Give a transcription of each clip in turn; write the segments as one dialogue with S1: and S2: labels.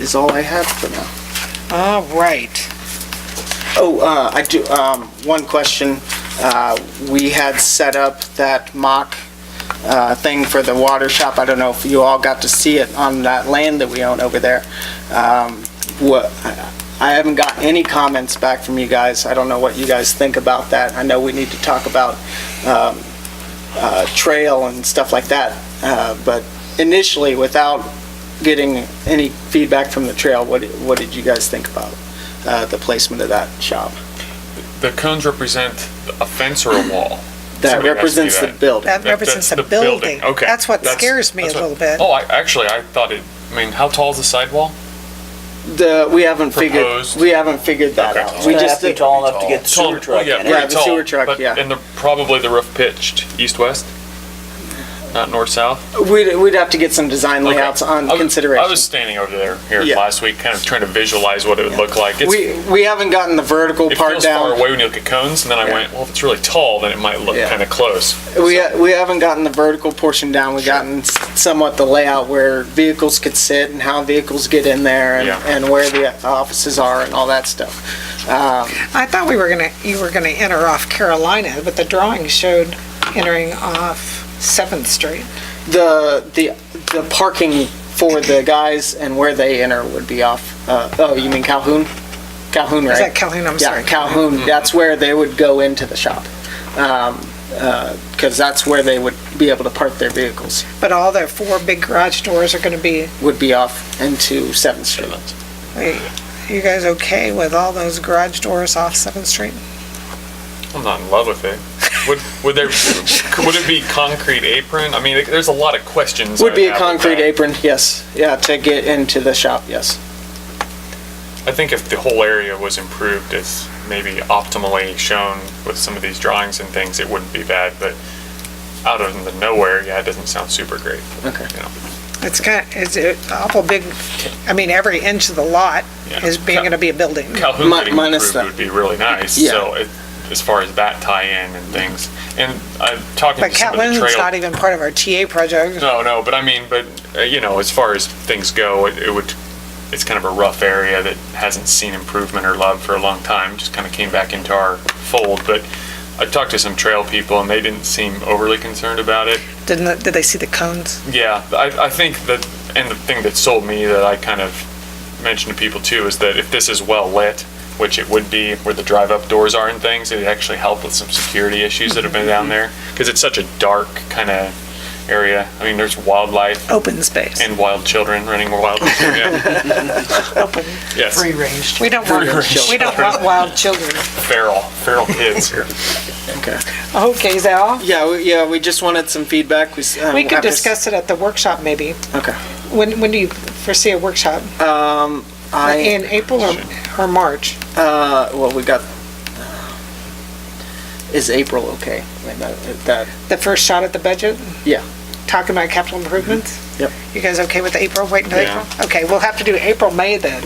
S1: is all I have for now.
S2: All right.
S1: Oh, uh, I do, um, one question. Uh, We had set up that mock uh, thing for the water shop. I don't know if you all got to see it on that land that we own over there. Um, What, I haven't got any comments back from you guys. I don't know what you guys think about that. I know we need to talk about um, uh, trail and stuff like that, Uh, but initially, without getting any feedback from the trail, what what did you guys think about uh, the placement of that shop?
S3: The cones represent a fence or a
S1: That
S3: wall. Somebody has to
S1: represents
S3: do
S1: the
S3: that.
S1: building.
S2: That represents a
S3: the building,
S2: building.
S3: okay.
S2: That's what
S3: That's-
S2: scares me a
S3: that's what-
S2: little bit.
S3: Oh, I, actually, I thought it, I mean, how tall is the sidewall?
S1: The, we haven't figured,
S3: Proposed.
S1: we haven't figured that
S3: Okay.
S1: out. We just, uh,
S4: be tall enough to get the
S3: Tall-
S4: sewer
S3: well,
S4: truck in
S1: Yeah,
S4: it.
S3: pretty
S1: the
S3: tall,
S1: sewer truck,
S3: but-
S1: yeah.
S3: And the, probably the roof pitched east-west, not north-south.
S1: we'd, we'd have to get some design
S3: Okay.
S1: layouts on
S3: I was- I
S1: consideration.
S3: was standing over there here
S1: Yeah.
S3: last week, kind of trying to visualize what it would look like. It's-
S1: We, we haven't gotten the vertical
S3: It
S1: part
S3: feels far
S1: down.
S3: away when you look at cones, and then I
S1: Yeah.
S3: went, well, if it's really tall, then it might look
S1: Yeah.
S3: kind of close.
S1: We, ha- we haven't gotten the vertical portion down. We've gotten somewhat the layout where vehicles could sit and how vehicles get in there and,
S3: Yeah.
S1: and where the offices are and all that stuff. Uh,
S2: I thought we were gonna, you were gonna enter off Carolina, but the drawing showed entering off Seventh Street.
S1: The, the, the parking for the guys and where they enter would be off, uh, oh, you mean Calhoun? Calhoun, right?
S2: Is that Calhoun? I'm
S1: Yeah,
S2: sorry.
S1: Calhoun, that's where they would go into the shop. Because that's where they would be able to park their vehicles,
S2: But all the four big garage doors are gonna be,
S1: would be off into 7th Street.
S2: you guys okay with all those garage doors off Seventh Street?
S3: I'm not in love with it. Would, would there, could- would it be concrete apron? I mean, it- there's a lot of questions.
S1: Would
S3: I
S1: be a
S3: have with
S1: concrete
S3: that.
S1: apron, yes, yeah, to get into the shop, yes.
S3: I think if the whole area was improved as maybe optimally shown with some of these drawings and things, it wouldn't be bad, but out of the nowhere, yeah, it doesn't sound super great.
S1: Okay.
S3: You know,
S2: It's kind, it's a awful big, I mean, every inch of the lot
S3: Yeah.
S2: is being, gonna be a building.
S3: Calhoun
S1: Mi-
S3: getting
S1: minus
S3: improved
S1: that.
S3: would be really nice,
S1: Yeah.
S3: so it- as far as that tie-in and things. And I'm talking
S2: But
S3: to some of the trail.
S2: Calhoun's not even part of our TA project.
S3: No, no, but I mean, but, uh, you know, as far as things go, it, it would, it's kind of a rough area that hasn't seen improvement or love for a long time, just kind of came back into our fold, but I talked to some trail people and they didn't seem overly concerned about it.
S2: Didn't, the- did they see the cones?
S3: Yeah, I, I think that, and the thing that sold me that I kind of mentioned to people too is that if this is well lit, which it would be where the drive up doors are and things, it'd actually help with some security issues that have been down there because it's such a dark kind of area. I mean, there's wildlife
S2: open space.
S3: and wild children running wild. Yeah. yes,
S5: free range.
S2: We don't want,
S3: Free-range
S2: we don't want wild children.
S3: feral, feral kids here.
S1: Okay.
S2: Okay, Zal,
S1: Yeah, we- yeah, we just wanted some feedback. We s- um,
S2: we could
S1: after s-
S2: discuss it at the workshop maybe.
S1: Okay.
S2: When, when do you foresee a workshop? Uh,
S1: I,
S2: In April or, or March?
S1: uh, well, we got, is April okay? Wait, that- That,
S2: The first shot at the budget?
S1: Yeah. Mm-hmm.
S2: Talking about capital improvements?
S1: Yep.
S2: You guys okay with April, waiting till
S3: Yeah.
S2: April? Okay, we'll have to do April, May then,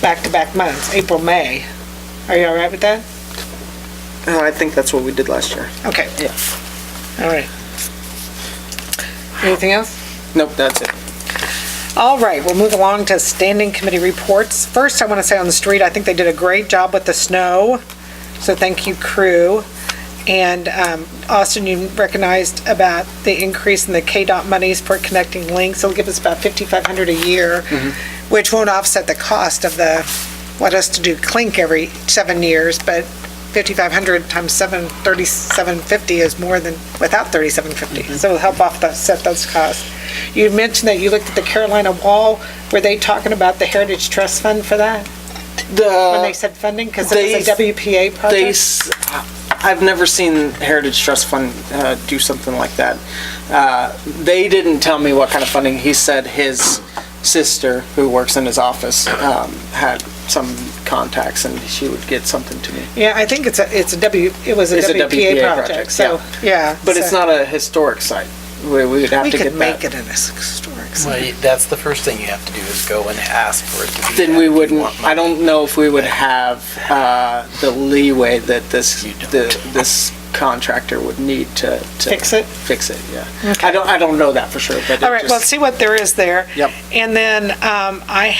S2: back-to-back months, April, May. Are you all right with that?
S1: uh, I think that's what we did last year.
S2: Okay.
S1: Yeah.
S2: All right. Anything else?
S1: Nope, that's it.
S2: All right, we'll move along to standing committee reports. First, I want to say on the street, I think they did a great job with the snow, so thank you, crew. And um, Austin, you recognized about the increase in the KDOT monies for connecting links. It'll give us about 5,500 a year, which won't offset the cost of the, what us to do clink every seven years, but 5,500 times 7, 3750 is more than, without
S1: Mm-hmm.
S2: 3750. So it'll help offset those costs. You mentioned that you looked at the Carolina Wall. Were they talking about the Heritage Trust Fund for that? When they
S1: The,
S2: said funding? Because
S1: Uh, they-
S2: it was a
S1: they,
S2: WPA project?
S1: s- I've never seen Heritage Trust Fund uh, do something like that. Uh, They didn't tell me what kind of funding. He said his sister, who works in his office, um, had some contacts and she would get something to me.
S2: Yeah, I think it's a, it's a W, it was a
S1: It's a
S2: WPA
S1: WPA
S2: project,
S1: project,
S2: so, yeah.
S1: But it's
S2: so
S1: not a historic site. We we would have
S2: We
S1: to get
S2: could make
S1: that.
S2: it in a historic. site.
S5: Well, you- that's the first thing you have to do is go and ask for it to be.
S1: Then
S5: that.
S1: we
S5: You
S1: wouldn't,
S5: want
S1: I don't know if we would have uh, the leeway that this,
S5: You don't.
S1: the- this contractor would need to. to
S2: Fix it?
S1: Fix it, yeah. I don't, I don't know that for sure, but it
S2: All right, well,
S1: just-
S2: see what there is there.
S1: Yep.
S2: And then um, I